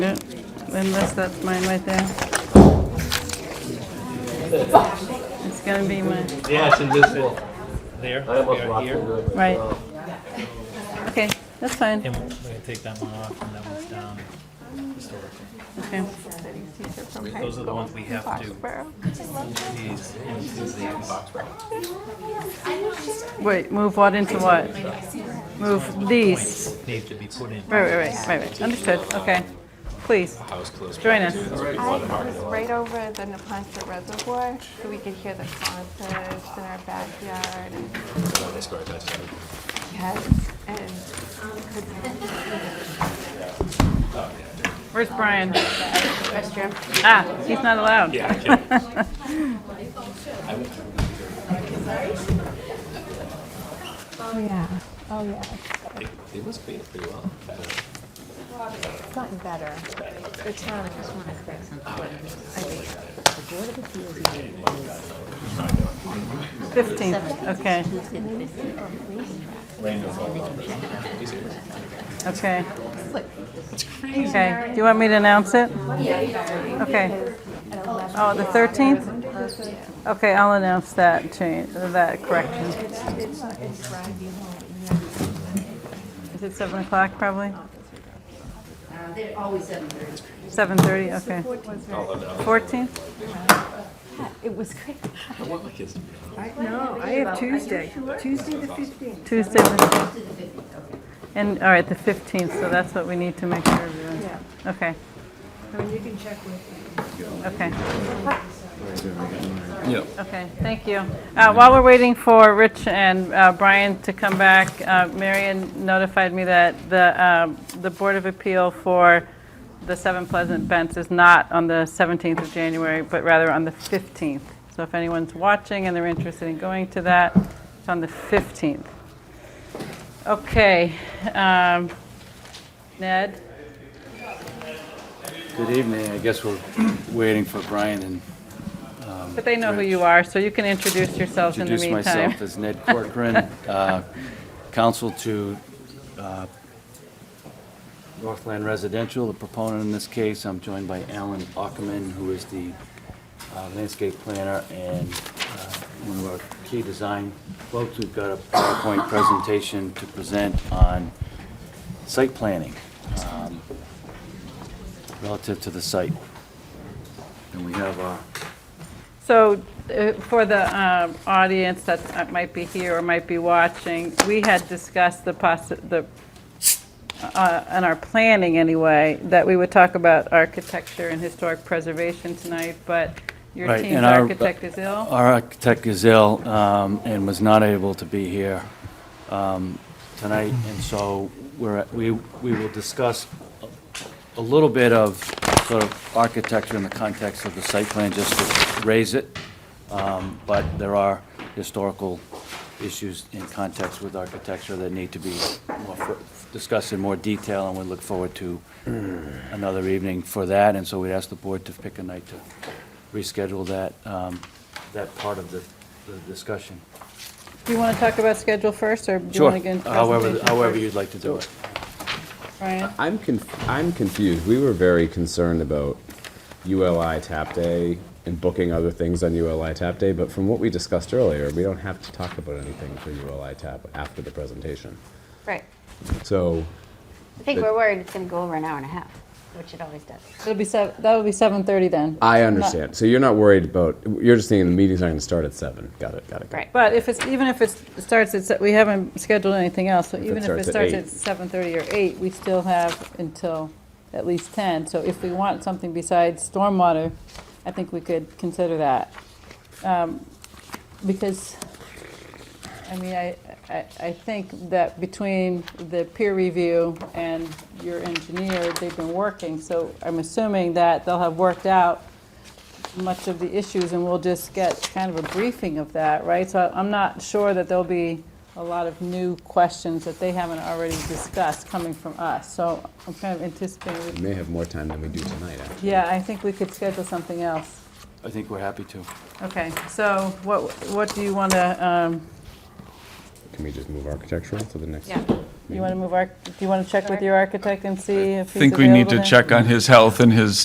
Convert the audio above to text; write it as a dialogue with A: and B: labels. A: unless that's mine right there. It's gonna be mine,
B: Yeah, it's invisible. There,
C: I almost
B: here,
C: lost it.
B: here.
C: uh,
A: Right. okay, that's fine,
B: And we're gonna take that one off and that one's down historically.
A: okay.
B: Those are the ones we have to these into the box bracket.
A: Wait, move what into what? Move these,
B: Need to be put in.
A: right, right, right, right, right, understood, okay. Please, join us.
D: I was right over the Neponset Reservoir, so we could hear the concerts in our backyard. and- Yes, and
A: Where's Brian?
D: restroom.
A: Ah, he's not allowed. Yeah,
E: Oh, yeah. Oh, yeah.
C: They must be pretty well.
E: It's gotten better. The town is just one of the things. I think the Board of Appeals meeting is
A: Fifteen, okay,
E: in this or racetrack.
A: okay.
E: It's like
A: Okay, do you want me to announce it? Okay. Oh, the 13th? Okay, I'll announce that change, uh, that correction. Is it 7 o'clock probably? They're always 7:30. 7:30, okay. 14th?
E: It was great.
C: I want my kids to be.
F: No, I have Tuesday, Tuesday the fifteenth.
A: Tuesday, the- and, all right, the 15th, so that's what we need to make sure we're doing. Okay,
F: You can check with.
A: okay.
C: Yeah.
A: Okay, thank you. Uh, While we're waiting for Rich and uh, Brian to come back, uh, Marion notified me that the um, the Board of Appeal for the Seven Pleasant Bents is not on the 17th of January, but rather on the 15th. So if anyone's watching and they're interested in going to that, it's on the 15th. Okay, um, Ned?
G: Good evening. I guess we're waiting for Brian and
A: But they know who you are, so you can introduce yourselves in the
G: introduce
A: meantime.
G: myself as Ned Corcoran, uh, counsel to uh, Northland Residential, the proponent in this case. I'm joined by Alan Ackerman, who is the uh, landscape planner and uh, one of our key design folks. We've got a PowerPoint presentation to present on site planning um, relative to the site. And we have uh, our
A: So uh, for the um, audience that uh, might be here or might be watching, we had discussed the possi, the, uh, in our planning anyway, that we would talk about architecture and historic preservation tonight, but your
G: Right,
A: team's
G: and our- uh,
A: architect is ill.
G: Our architect is ill um, and was not able to be here um, tonight, and so we're, we we will discuss a- a little bit of sort of architecture in the context of the site plan, just to raise it, Um, but there are historical issues in context with architecture that need to be more fur- discussed in more detail, and we look forward to another evening for that, and so we'd ask the board to pick a night to reschedule that, um, that part of the the discussion.
A: Do you want to talk about schedule first, or do you
G: Sure,
A: want to get into
G: however,
A: presentation
G: however
A: first?
G: you'd like to do it.
A: Brian?
H: I'm conf- I'm confused. We were very concerned about ULI Tap Day and booking other things on ULI Tap Day, but from what we discussed earlier, we don't have to talk about anything for ULI Tap after the presentation.
I: Right.
H: So
I: I think we're worried it's going to go over an hour and a half, which it always does.
A: It'll be seven, that'll be 7:30 then.
H: I understand. So you're not worried about. You're just thinking the meeting's not going to start at seven. Got it. Got it. Got it.
I: Right.
A: But if it's, even if it's- it starts, at se- we haven't scheduled anything else, so even if it
H: starts at
A: starts
H: eight.
A: at 7:30 or 8, we still have until at least 10. So if we want something besides stormwater, I think we could consider that. Um, Because, I mean, I, I- I think that between the peer review and your engineer, they've been working. So I'm assuming that they'll have worked out much of the issues, and we'll just get kind of a briefing of that, right? So I'm not sure that there'll be a lot of new questions that they haven't already discussed coming from us. So I'm kind of
H: We
A: anticipating,
H: may have more time than we do tonight. Actually.
A: yeah, I think we could schedule something else.
G: I think we're happy to.
A: Okay, so what, what do you um, want to,
H: Can we just move architectural to the next?
D: Yeah.
A: you want to move, arch- do you want to check with your architect and see if he's
J: think we need
A: available
J: to
A: then?
J: check on his health and his